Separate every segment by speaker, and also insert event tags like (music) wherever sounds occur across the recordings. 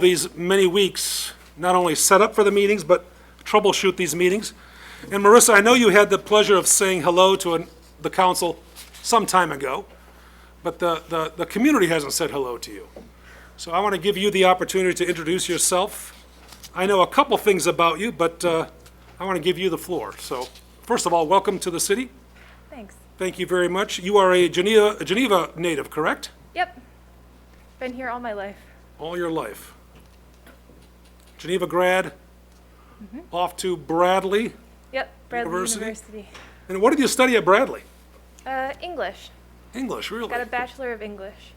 Speaker 1: these many weeks, not only set up for the meetings, but troubleshoot these meetings. And Marissa, I know you had the pleasure of saying hello to an- the council some time ago, but the, the, the community hasn't said hello to you. So I want to give you the opportunity to introduce yourself. I know a couple things about you, but uh, I want to give you the floor. So first of all, welcome to the city.
Speaker 2: Thanks.
Speaker 1: Thank you very much. You are a Geneva, a Geneva native, correct?
Speaker 2: Yep. Been here all my life.
Speaker 1: all your life. Geneva grad,
Speaker 2: Mm-hmm.
Speaker 1: off to Bradley.
Speaker 2: Yep. Bradley
Speaker 1: University?
Speaker 2: University.
Speaker 1: And what did you study at Bradley?
Speaker 2: Uh, English.
Speaker 1: English, really?
Speaker 2: Got a Bachelor of English.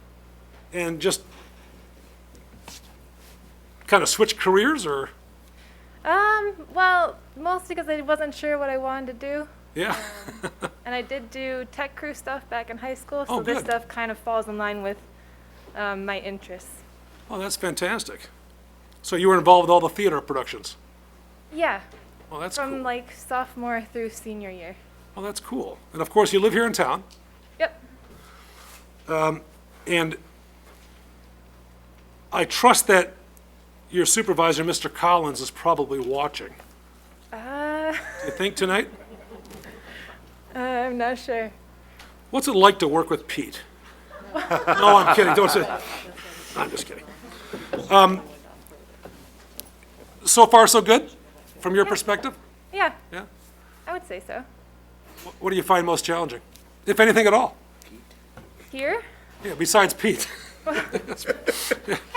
Speaker 1: And just kind of switch careers, or
Speaker 2: Um, well, mostly because I wasn't sure what I wanted to do.
Speaker 1: yeah,
Speaker 2: And I did do tech crew stuff back in high school, so
Speaker 1: Oh,
Speaker 2: this
Speaker 1: good.
Speaker 2: stuff kind of falls in line with um, my interests.
Speaker 1: (laughs) oh, that's fantastic. So you were involved with all the theater productions.
Speaker 2: Yeah,
Speaker 1: Well, that's
Speaker 2: from
Speaker 1: cool.
Speaker 2: like sophomore through senior year.
Speaker 1: Well, that's cool. And of course, you live here in town,
Speaker 2: Yep.
Speaker 1: and I trust that your supervisor, Mr. Collins, is probably watching.
Speaker 2: Uh, (laughs)
Speaker 1: You think tonight?
Speaker 2: I'm not sure.
Speaker 1: What's it like to work with Pete? No, I'm kidding, don't say, I'm just kidding. Um, So far, so good, from your perspective?
Speaker 2: Yeah,
Speaker 1: Yeah?
Speaker 2: I would say so.
Speaker 1: Wh- What do you find most challenging, if anything at all?
Speaker 2: Here?
Speaker 1: Yeah, besides Pete.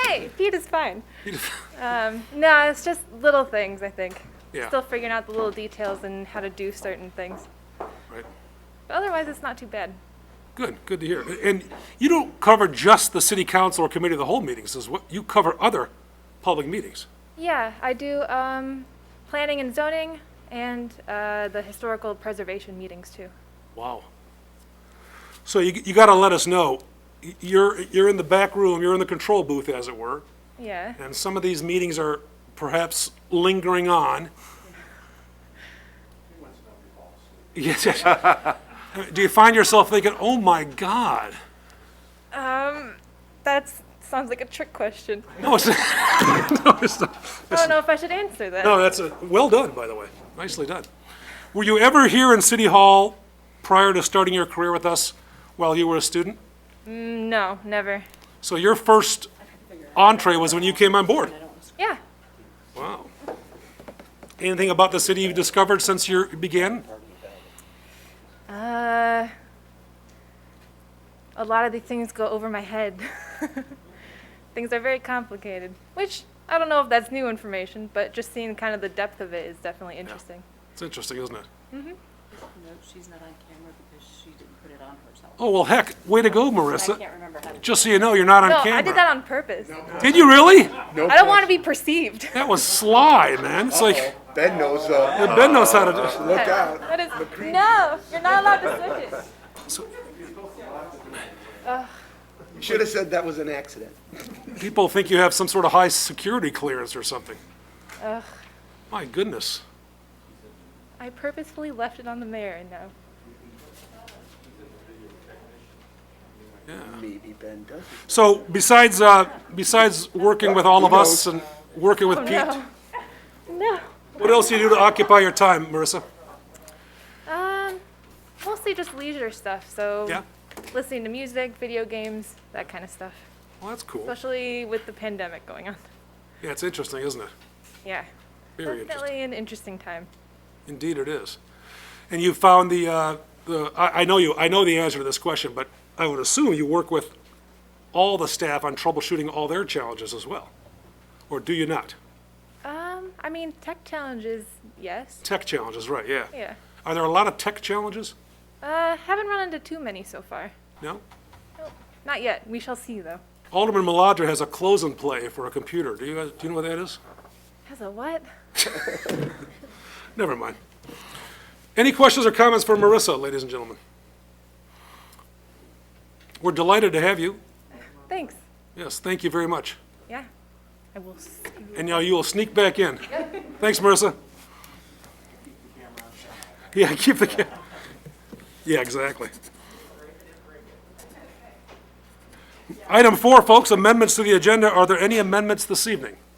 Speaker 2: Hey, Pete is fine. (laughs) um, no, it's just little things, I think.
Speaker 1: Yeah.
Speaker 2: Still figuring out the little details and how to do certain things.
Speaker 1: Right.
Speaker 2: But otherwise, it's not too bad.
Speaker 1: Good, good to hear. A- And you don't cover just the city council or committee of the whole meetings, is what, you cover other public meetings.
Speaker 2: Yeah, I do um, planning and zoning and uh, the historical preservation meetings too.
Speaker 1: Wow. So you, you gotta let us know, Y- you're, you're in the back room, you're in the control booth, as it were,
Speaker 2: Yeah.
Speaker 1: and some of these meetings are perhaps lingering on. Yes, yes. (laughs) I mean, Do you find yourself thinking, oh my God?
Speaker 2: Um, that sounds like a trick question.
Speaker 1: No, it's, no, it's not. (laughs)
Speaker 2: I don't know if I should answer that.
Speaker 1: No, that's a, well done, by the way. Nicely done. Were you ever here in City Hall prior to starting your career with us while you were a student?
Speaker 2: No, never.
Speaker 1: So your first entree was when you came on board?
Speaker 2: Yeah.
Speaker 1: Wow. Anything about the city you've discovered since you began?
Speaker 2: Uh, a lot of the things go over my head. (laughs) things are very complicated, which I don't know if that's new information, but just seeing kind of the depth of it is definitely interesting.
Speaker 1: It's interesting, isn't it?
Speaker 3: No, she's not on camera because she didn't put it on herself.
Speaker 1: Oh, well, heck, way to go,
Speaker 3: I
Speaker 1: Marissa.
Speaker 3: can't remember how to.
Speaker 1: Just so you know, you're not on
Speaker 2: No,
Speaker 1: camera.
Speaker 2: I did that on purpose.
Speaker 1: Did you really?
Speaker 2: I don't want to
Speaker 1: (laughs)
Speaker 2: be perceived.
Speaker 1: That was sly, man. It's like,
Speaker 4: Ben knows, uh,
Speaker 1: Ben knows how to do
Speaker 4: look out.
Speaker 2: That is no, you're not allowed to switch it.
Speaker 1: so
Speaker 4: You should have said that was an accident.
Speaker 1: People think you have some sort of high security clearance or something.
Speaker 2: Ugh,
Speaker 1: My goodness.
Speaker 2: I purposefully left it on the mirror. No,
Speaker 4: Maybe Ben does.
Speaker 1: So besides, uh, besides working with all of us and working with Pete,
Speaker 2: Oh, no, no. (laughs)
Speaker 1: what else do you do to occupy your time, Marissa?
Speaker 2: Um, mostly just leisure stuff. So
Speaker 1: Yeah?
Speaker 2: listening to music, video games, that kind of stuff.
Speaker 1: Well, that's cool.
Speaker 2: especially with the pandemic going on. (laughs)
Speaker 1: Yeah, it's interesting, isn't it?
Speaker 2: Yeah,
Speaker 1: Very interesting.
Speaker 2: definitely an interesting time.
Speaker 1: Indeed, it is. And you found the, uh, the, I, I know you, I know the answer to this question, but I would assume you work with all the staff on troubleshooting all their challenges as well? Or do you not?
Speaker 2: Um, I mean, tech challenges, yes.
Speaker 1: Tech challenges, right, yeah.
Speaker 2: Yeah.
Speaker 1: Are there a lot of tech challenges?
Speaker 2: Uh, haven't run into too many so far.
Speaker 1: No?
Speaker 2: Not yet. We shall see, though.
Speaker 1: Alderman Maladra has a close and play for a computer. Do you, guys- do you know what that is?
Speaker 2: Has a what?
Speaker 1: Never mind. Any questions or comments for Marissa, ladies and gentlemen? We're delighted to have you.
Speaker 2: Thanks.
Speaker 1: Yes, thank you very much.
Speaker 2: Yeah. I will. s-
Speaker 1: And now you will sneak back in. Thanks, Marissa. Yeah, keep the camera. Yeah, exactly. Item four, folks, amendments to the agenda. Are there any amendments this evening?